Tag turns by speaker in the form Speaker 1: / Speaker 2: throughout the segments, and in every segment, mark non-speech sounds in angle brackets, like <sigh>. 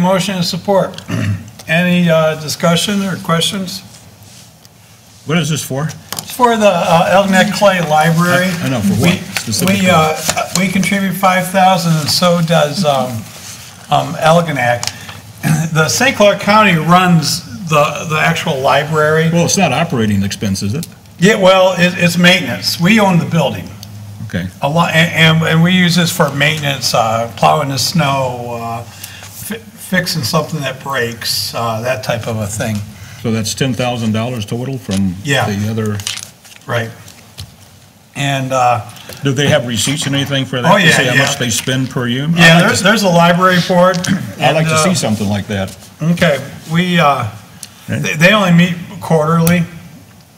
Speaker 1: Motion and support. <clears throat> Any uh, discussion or questions?
Speaker 2: What is this for?
Speaker 1: It's for the uh, Elginak Clay Library.
Speaker 2: I- I know, for what
Speaker 1: We-
Speaker 2: specifically?
Speaker 1: We, uh, we contribute 5,000 and so does um, um, Elginak. <clears throat> The St. Clair County runs the, the actual library.
Speaker 2: Well, it's not operating expense, is it?
Speaker 1: Yeah, well, it- it's maintenance. We own the building.
Speaker 2: Okay.
Speaker 1: A lot, and, and- and we use this for maintenance, uh, plowing the snow, uh, fi- fixing something that breaks, uh, that type of a thing.
Speaker 2: So that's ten thousand dollars total from
Speaker 1: Yeah.
Speaker 2: the other,
Speaker 1: Right. And, uh,
Speaker 2: do they have receipts and anything for
Speaker 1: Oh,
Speaker 2: that? To
Speaker 1: yeah,
Speaker 2: say how
Speaker 1: yeah.
Speaker 2: much they spend per year? I'd
Speaker 1: yeah,
Speaker 2: like
Speaker 1: there's,
Speaker 2: to-
Speaker 1: there's a library board.
Speaker 2: <clears throat> I'd like to see
Speaker 1: and,
Speaker 2: something like that.
Speaker 1: uh, Okay, we, uh, they they only meet quarterly,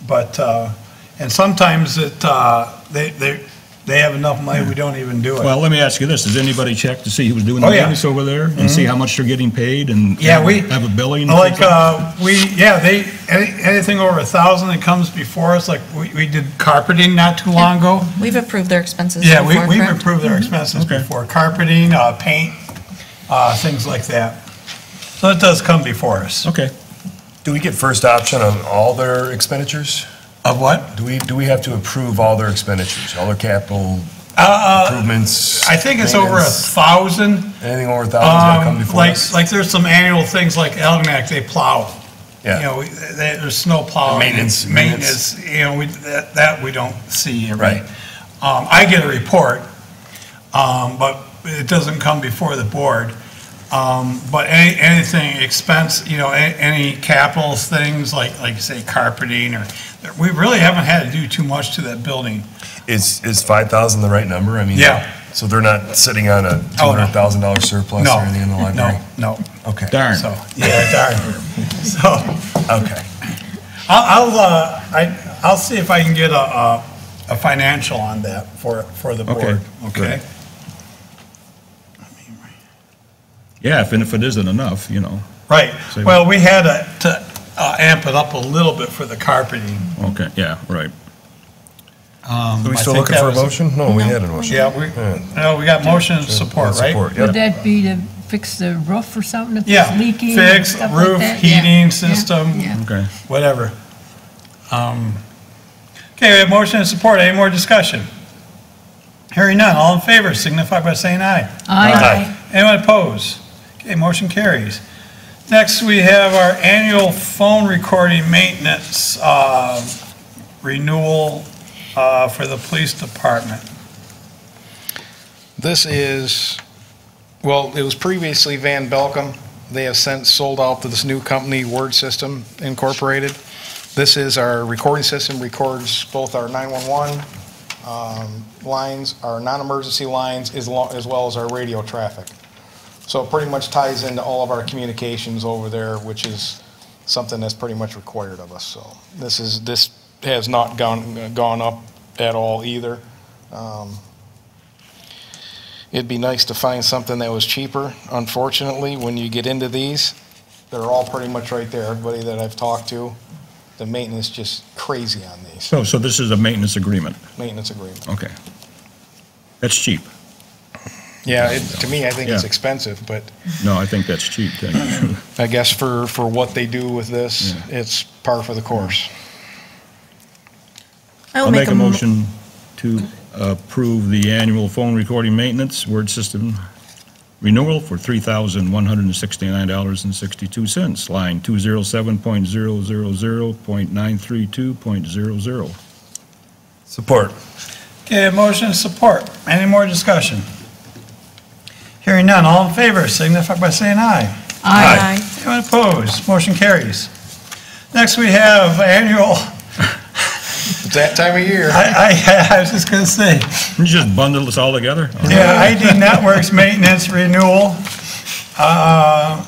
Speaker 1: but, uh, and sometimes it, uh, they, they, they have enough money, we don't even do it.
Speaker 2: Well, let me ask you this, does anybody check to see who's doing the
Speaker 1: Oh, yeah. Mm-hmm.
Speaker 2: business over there? And see how much they're getting paid and?
Speaker 1: Yeah, we.
Speaker 2: Have a billing?
Speaker 1: Like, uh, we, yeah, they, any- anything over a thousand that comes before us, like, we, we did carpeting not too long ago.
Speaker 3: We've approved their expenses
Speaker 1: Yeah, we,
Speaker 3: before,
Speaker 1: we've
Speaker 3: correct?
Speaker 1: approved their expenses
Speaker 2: Mm-hmm. Okay.
Speaker 1: before, carpeting, uh, paint, uh, things like that. So it does come before us.
Speaker 2: Okay.
Speaker 4: Do we get first option on all their expenditures?
Speaker 1: Of what?
Speaker 4: Do we, do we have to approve all their expenditures, all their capital
Speaker 1: Uh,
Speaker 4: improvements?
Speaker 1: I think it's over a
Speaker 4: maintenance?
Speaker 1: thousand.
Speaker 4: Anything over a thousand's gonna come
Speaker 1: Um,
Speaker 4: before
Speaker 1: like,
Speaker 4: us?
Speaker 1: like there's some annual things like Elginak, they plow. You
Speaker 4: Yeah,
Speaker 1: know, we- they- there's snow plowing.
Speaker 4: Maintenance,
Speaker 1: Maintenance, you know, we, that, that we don't see every.
Speaker 4: Right.
Speaker 1: Um, I get a report, um, but it doesn't come before the board. Um, but any, anything expense, you know, a- any capital things like, like you say carpeting or, we really haven't had to do too much to that building.
Speaker 4: is, is five thousand the right number? I mean.
Speaker 1: Yeah.
Speaker 4: So they're not sitting on a two
Speaker 1: Oh, no.
Speaker 4: hundred thousand dollar surplus or
Speaker 1: No,
Speaker 4: anything in the library?
Speaker 1: no, no.
Speaker 4: Okay.
Speaker 2: Darn.
Speaker 1: So, <laughs> yeah, darn. So.
Speaker 4: Okay.
Speaker 1: I'll, I'll, uh, I, I'll see if I can get a, a, a financial on that for, for the
Speaker 2: Okay,
Speaker 1: board, okay?
Speaker 2: great. Yeah, if, and if it isn't enough, you know,
Speaker 1: Right,
Speaker 2: So-
Speaker 1: well, we had a- to uh, amp it up a little bit for the carpeting.
Speaker 2: okay, yeah, right.
Speaker 4: Are we
Speaker 1: Um, I
Speaker 4: still
Speaker 1: think
Speaker 4: looking
Speaker 1: that
Speaker 4: for a
Speaker 1: was a-
Speaker 4: motion? No, we had a motion.
Speaker 1: Yeah, we, no, we got motion and support, right?
Speaker 4: Support,
Speaker 5: Would
Speaker 4: yeah.
Speaker 5: that be to fix the roof or something if
Speaker 1: Yeah,
Speaker 5: it's leaking? and
Speaker 1: fix,
Speaker 5: stuff like
Speaker 1: roof,
Speaker 5: that? Yeah,
Speaker 1: heating
Speaker 5: yeah,
Speaker 1: system.
Speaker 5: yeah.
Speaker 2: Okay.
Speaker 1: Whatever. Um, Okay, we have motion and support, any more discussion? Hearing none, all in favor signify by saying aye.
Speaker 5: Aye.
Speaker 1: Anyone opposed? Okay, motion carries. Next, we have our annual phone recording maintenance uh, renewal uh, for the police department.
Speaker 6: This is, well, it was previously Van Belcom. They have since sold out to this new company, Word System Incorporated. This is our recording system, records both our 911 um, lines, our non-emergency lines, as lo- as well as our radio traffic. So it pretty much ties into all of our communications over there, which is something that's pretty much required of us, so. This is, this has not gone, gone up at all either. Um, It'd be nice to find something that was cheaper. Unfortunately, when you get into these, they're all pretty much right there. Everybody that I've talked to, the maintenance just crazy on these,
Speaker 2: So, so this is a maintenance agreement,
Speaker 6: maintenance agreement.
Speaker 2: okay. That's cheap.
Speaker 6: Yeah, it, to me, I think it's
Speaker 2: Yeah.
Speaker 6: expensive, but
Speaker 2: No, I think that's cheap, thank you.
Speaker 6: I guess for, for what they do with this, it's par for the course.
Speaker 3: I will
Speaker 2: I'll make a
Speaker 3: mo-
Speaker 2: motion to approve the annual phone recording maintenance word system renewal for $3,169.62, line 207.000.932.00.
Speaker 4: Support.
Speaker 1: Okay, a motion and support. Any more discussion? Hearing none, all in favor signify by saying aye.
Speaker 3: Aye.
Speaker 1: Anyone opposed? Motion carries. Next, we have annual, <laughs>
Speaker 6: It's that time of year.
Speaker 1: I, I, I was just gonna say,
Speaker 2: Can you just bundle this all together?
Speaker 1: yeah, ID Networks Maintenance Renewal, uh,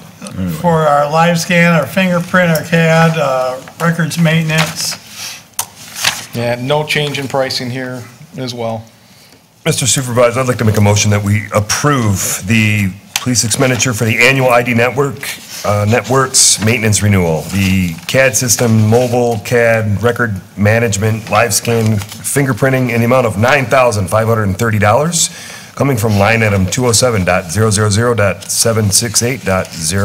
Speaker 1: for our live scan, our fingerprint, our CAD, uh, records maintenance.
Speaker 6: Yeah, no change in pricing here as well.
Speaker 4: Mr. Supervisor, I'd like to make a motion that we approve the police expenditure for the annual ID network, uh, networks maintenance renewal, the CAD system, mobile CAD, record management, live scan, fingerprinting, in the amount of $9,530, coming from line item 207.000.768.0.